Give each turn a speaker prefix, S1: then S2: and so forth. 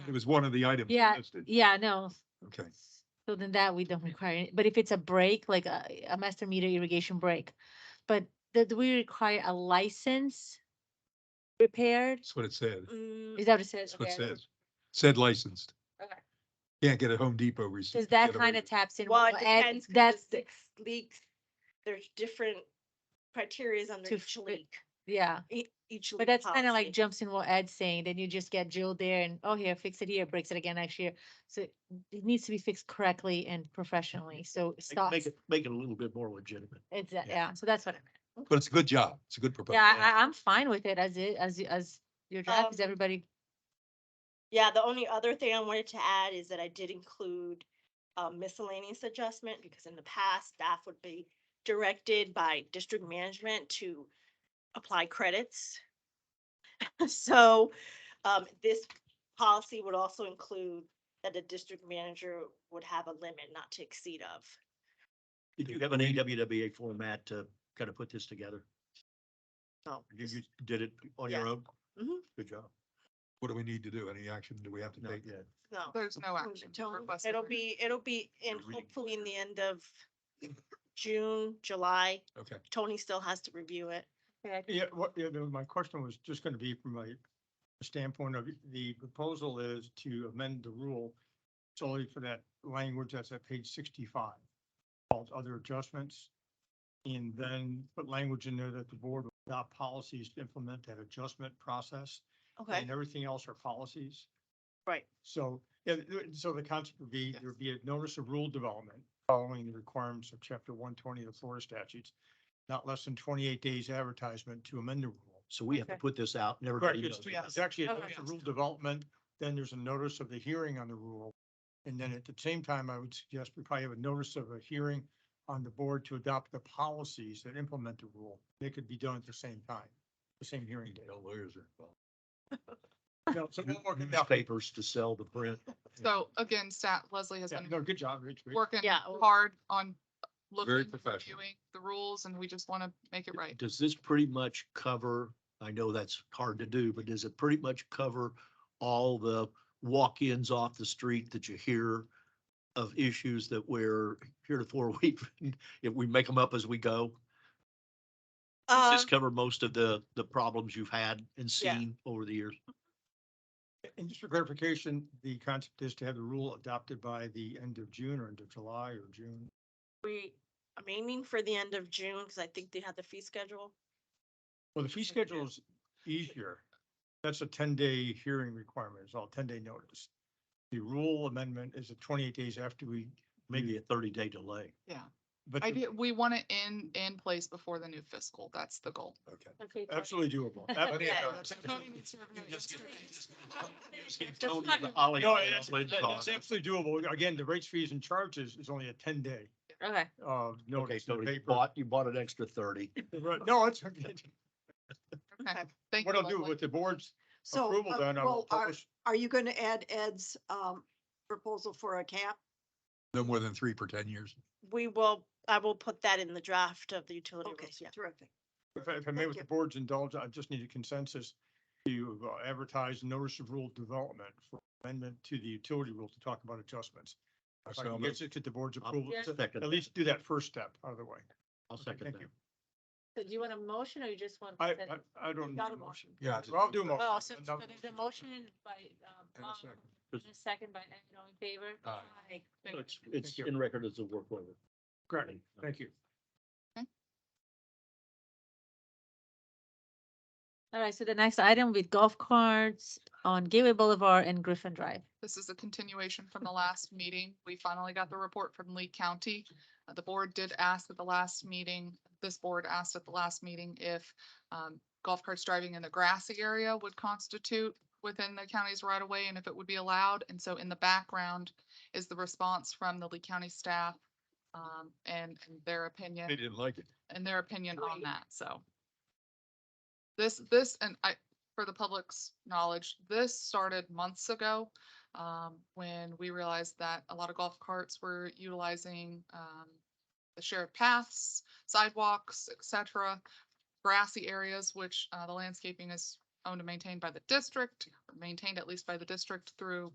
S1: It was one of the items
S2: Yeah.
S1: listed.
S2: Yeah, no.
S1: Okay.
S2: So then that we don't require, it. but if it's a break, like a, a master meter irrigation break, but that we require a license repaired?
S1: That's what it said.
S3: Mm,
S2: Is that what it says?
S1: That's what it
S2: Mm-hmm. Okay.
S1: says. Said licensed.
S2: Okay.
S1: Can't get a Home Depot receipt.
S2: Cause
S1: to
S2: that
S1: get away
S2: kind of
S1: with it.
S2: taps in.
S3: Well,
S2: what-
S3: it
S2: and
S3: depends, cause the
S2: That's,
S3: six leagues, there's different criterias under
S2: To
S3: each
S2: fit-
S3: league,
S2: yeah,
S3: e- each league.
S2: but that's kind of
S3: policy.
S2: like jumps in what Ed's saying, then you just get drilled there and, oh, here, fix it here, breaks it again next year. So it needs to be fixed correctly and professionally, so it
S4: Make-
S2: stops.
S4: Make it, make it a little bit more legitimate.
S2: It's, a-
S4: yeah.
S2: yeah, so that's what I meant.
S1: But it's a good job. It's a good proposal.
S2: Yeah, I, I- I'm fine with it as it, as, as your draft, is
S3: Um,
S2: everybody,
S3: Yeah, the only other thing I wanted to add is that I did include a miscellaneous adjustment because in the past, staff would be directed by district management to apply credits. So, um, this policy would also include that the district manager would have a limit not to exceed of.
S4: Did you have an AWWA format to kind of put this together?
S3: No.
S4: You, you did it on
S3: Yeah.
S4: your own?
S3: Mhm.
S4: Good job.
S1: What do we need to do? Any action do we have to
S4: No,
S1: take?
S4: yeah.
S3: No.
S5: There's no
S3: Mm,
S5: action.
S3: don't-
S5: requested
S3: It'll
S5: right
S3: be, it'll be in
S4: Reading.
S3: hopefully in the end of June, July.
S1: Okay.
S3: Tony still has to review it.
S6: Yeah, what, yeah, no, my question was just gonna be from a standpoint of the proposal is to amend the rule solely for that language that's at page sixty-five, called other adjustments. And then put language in there that the board will adopt policies to implement that adjustment process.
S3: Okay,
S6: And everything else are policies.
S3: right.
S6: So, yeah, th- th- so the concept would be, there'd be a notice of rule development following the requirements of chapter one twenty of the Florida statutes. Not less than twenty-eight days advertisement to amend the rule.
S4: So we have to
S3: Okay.
S4: put this out and
S6: Correct,
S4: everybody
S6: it's,
S4: knows. about
S6: it's
S4: it.
S6: actually a
S3: Okay.
S6: notice of rule development, then there's a notice of the hearing on the rule. And then at the same time, I would suggest we probably have a notice of a hearing on the board to adopt the policies that implement the rule. They could be done at the same time, the same hearing day.
S1: No lawyers are involved.
S6: No, so we'll work it out.
S4: Newspapers to sell the print.
S5: So again, staff, Leslie has
S6: Yeah,
S5: been
S6: No, good job, Rich. Great.
S5: working
S2: Yeah, well-
S5: hard on looking,
S1: professional.
S5: reviewing the rules and we just want to make it right.
S4: Does this pretty much cover, I know that's hard to do, but does it pretty much cover all the walk-ins off the street that you hear of issues that we're heretofore, we, if we make them up as we go? Does
S3: Uh,
S4: this cover most of the, the problems you've had and
S3: Yeah.
S4: seen over the years?
S6: And just for clarification, the concept is to have the rule adopted by the end of June or end of July or June.
S3: we, I'm aiming for the end of June because I think they have the fee schedule.
S6: Well, the fee schedule is easier. That's a ten-day hearing requirement. It's all ten-day notice. The rule amendment is a twenty-eight days after we, Hmm.
S4: Maybe a thirty-day delay.
S6: but
S5: I
S6: the-
S5: do, we want it in, in place before the new fiscal. That's the goal.
S1: Okay.
S2: Okay. Tony.
S6: absolutely doable.
S2: Okay.
S6: Ab-
S1: Yeah,
S6: that's
S5: Tony
S6: absolutely-
S5: needs to review it yesterday.
S4: Tony the Ollie
S6: No, that's,
S4: Ollie
S6: that- that's
S4: cost.
S6: absolutely doable. Again, the rates, fees and charges is only a ten-day,
S2: Okay.
S6: uh,
S4: Okay,
S6: notice. in the
S4: Tony, you
S6: paper.
S4: bought, you bought an extra thirty.
S6: Right. No, it's,
S5: Okay, thank you.
S6: what I'll do
S5: Leslie.
S6: with the board's
S7: So,
S6: approval
S7: uh,
S6: then, I will
S7: well, are,
S6: publish.
S7: are you going to add Ed's um, proposal for a cap?
S1: No more than three per ten years.
S3: We will, I will put that in the draft of the utility
S7: Okay,
S3: rules, yeah.
S7: terrific.
S6: If I, if I may,
S7: Thank
S6: with the
S7: you.
S6: board's indulgence, I just need a consensus to uh, advertise notice of rule development for amendment to the utility rule to talk about adjustments. If
S1: So
S6: I can
S1: moved.
S6: get to get the board's
S4: I'll
S6: approval, to
S4: second
S6: at least do that first step out of the way.
S4: I'll second
S6: thank you.
S4: that.
S2: So do you want a motion or you just want?
S6: I,
S2: consent?
S6: I, I don't.
S2: Got
S6: need
S2: a
S6: a
S2: motion.
S1: Yeah.
S6: Well, I'll do a
S1: oh,
S2: Well, so
S6: motion.
S2: so there's a motion by, um,
S1: And a
S2: Bob,
S1: second.
S2: and a second by, Ed, all in favor?
S1: Aye.
S2: Aye. Thank you.
S4: It's, it's
S6: Thank you.
S4: in record as a work order.
S6: Great, thank you.
S2: All right, so the next item with golf carts on Gateway Boulevard and Griffin Drive.
S5: This is a continuation from the last meeting. We finally got the report from Lee County. Uh, The board did ask at the last meeting, this board asked at the last meeting if um, golf carts driving in the grassy area would constitute within the county's right of way and if it would be allowed. And so in the background is the response from the Lee County staff um, and and their opinion
S1: They didn't like it.
S5: and their opinion on
S2: Right.
S5: that, so. This, this, and I, for the public's knowledge, this started months ago. Um, when we realized that a lot of golf carts were utilizing, um, the shared paths, sidewalks, et cetera. Grassy areas, which, uh, the landscaping is owned and maintained by the district, or maintained at least by the district through